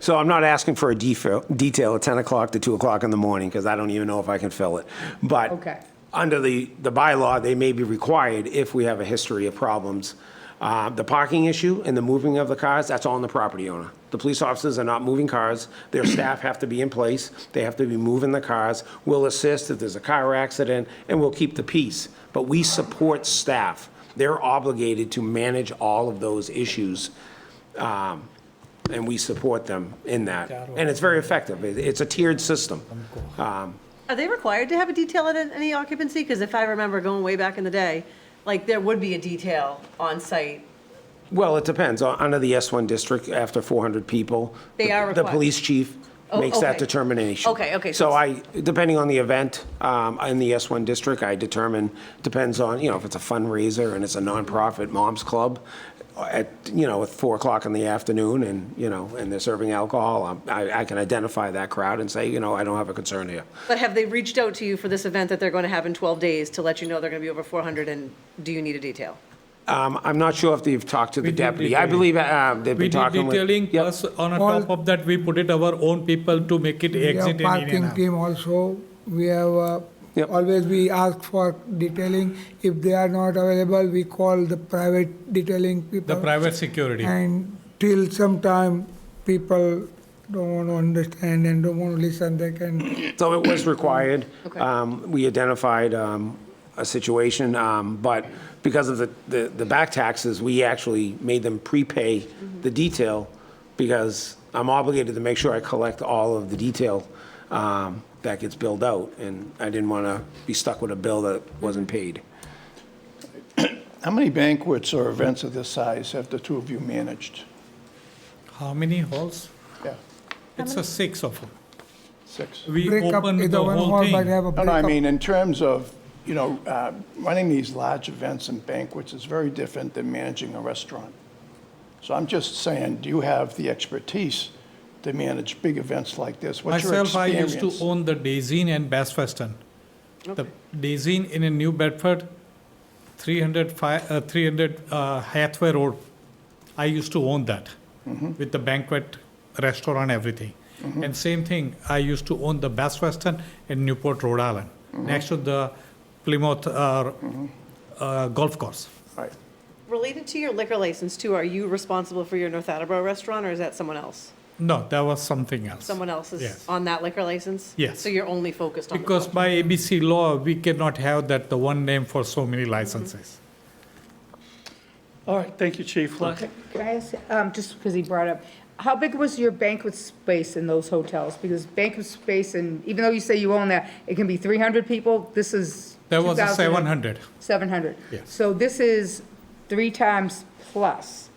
So I'm not asking for a defa- detail at 10 o'clock to 2 o'clock in the morning, because I don't even know if I can fill it. But. Okay. Under the, the bylaw, they may be required if we have a history of problems. Uh, The parking issue and the moving of the cars, that's on the property owner. The police officers are not moving cars. Their staff have to be in place. They have to be moving the cars. We'll assist if there's a car accident, and we'll keep the peace. But we support staff. They're obligated to manage all of those issues and we support them in that. And it's very effective. It- It's a tiered system. Are they required to have a detail at any occupancy? Because if I remember going way back in the day, like, there would be a detail on site. Well, it depends. U- Under the S1 district, after 400 people. They the- are The required. police chief Oh, makes that okay. determination. Okay, okay, so So I, depending on the event, um, in the S1 district, I determine, depends on, you know, if it's a fundraiser and it's a nonprofit mom's club uh, at, you know, at 4 o'clock in the afternoon and, you know, and they're serving alcohol, I'm- I, I can identify that crowd and say, you know, I don't have a concern here. But have they reached out to you for this event that they're going to have in 12 days to let you know they're going to be over 400 and do you need a detail? Um, I'm not sure if they've talked to the We did deputy. I detailing. believe uh, they've We been did talking with. detailing, Yep. plus on a top of that, we put it our own people to make it We have exit in parking Indiana. team also, we have, uh, Yep. always we ask for detailing. If they are not available, we call the private detailing people. The private security. And till sometime, people don't want to understand and don't want to listen, they can, So it was required. Okay. Um, We identified um, a situation, um, but because of the, the the back taxes, we actually made them prepay the detail because I'm obligated to make sure I collect all of the detail um, that gets billed out, and I didn't want to be stuck with a bill that wasn't paid. How many banquets or events of this size have the two of you managed? How many halls? Yeah, It's a six of them. six. We break up open either the one whole hall, but thing. have a No, break no, I up. mean, in terms of, you know, uh, running these large events and banquets is very different than managing a restaurant. So I'm just saying, do you have the expertise to manage big events like this? What's your Myself, I used to experience? own the Daisy and Bass Weston. The Daisy in a New Bedford, 300, fi- uh, 300 uh, Hathaway Road. I used to own that Mm-hmm. with the banquet, restaurant, everything. And same thing, I used to own the Bass Weston in Newport, Rhode Island, Mm-hmm. next to the Plymouth uh, uh, golf course. Right. Related to your liquor license too, are you responsible for your North Attleboro restaurant or is that someone else? No, that was something else. Someone else is Yes. on that liquor license? Yes. So you're only focused on the Because by ABC law, we cannot have that, the one name for so many licenses. All right, thank you, Chief. Last- Can I ask, um, just because he brought up, how big was your banquet space in those hotels? Because banquet space, and even though you say you own that, it can be 300 people, this is. There was a 2,000 700. 700. Yes. So this is three times plus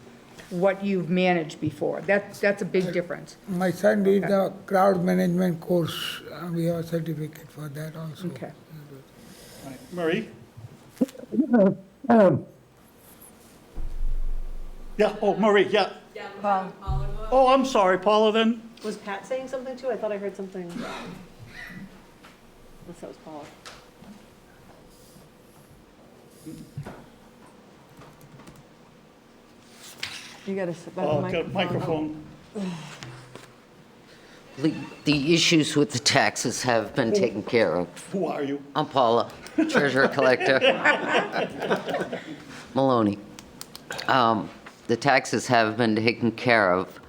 what you've managed before. That, that's a big difference. My son did the crowd management course, Uh, we have a certificate for that also. Okay. Marie? Yeah, oh, Marie, yeah. Oh, I'm sorry, Paula then? Was Pat saying something too? I thought I heard something. Unless that was Paula. You gotta sit by the Oh, got a microphone. microphone. The- The issues with the taxes have been taken care of. Who are you? I'm Paula, treasurer collector. Maloney. Um, The taxes have been taken care of,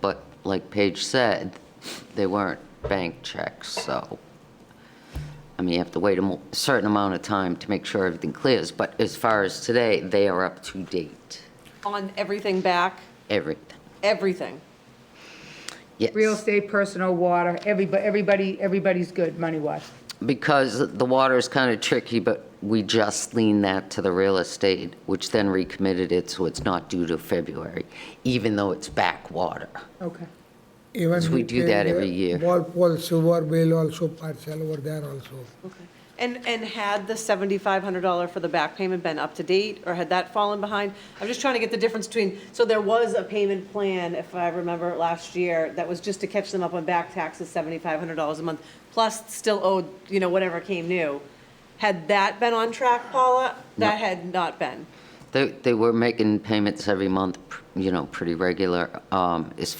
but like Paige said, they weren't bank checks, so, I mean, you have to wait a mo- a certain amount of time to make sure everything clears, but as far as today, they are up to date, On everything back, everything, everything. yes. Real estate, personal, water, everybody, everybody, everybody's good money-wise. because the water is kind of tricky, but we just leaned that to the real estate, which then recommitted it, so it's not due to February, even though it's back water. Okay. Even we do pay that the every year. Ball, ball, silver, bill also parcel over there also. And, and had the $7,500 for the back payment been up to date, or had that fallen behind? I'm just trying to get the difference between, so there was a payment plan, if I remember last year, that was just to catch them up on back taxes, $7,500 a month, plus still owed, you know, whatever came new. Had that been on track, Paula? That had not been. They, they were making payments every month, you know, pretty regular. Um, As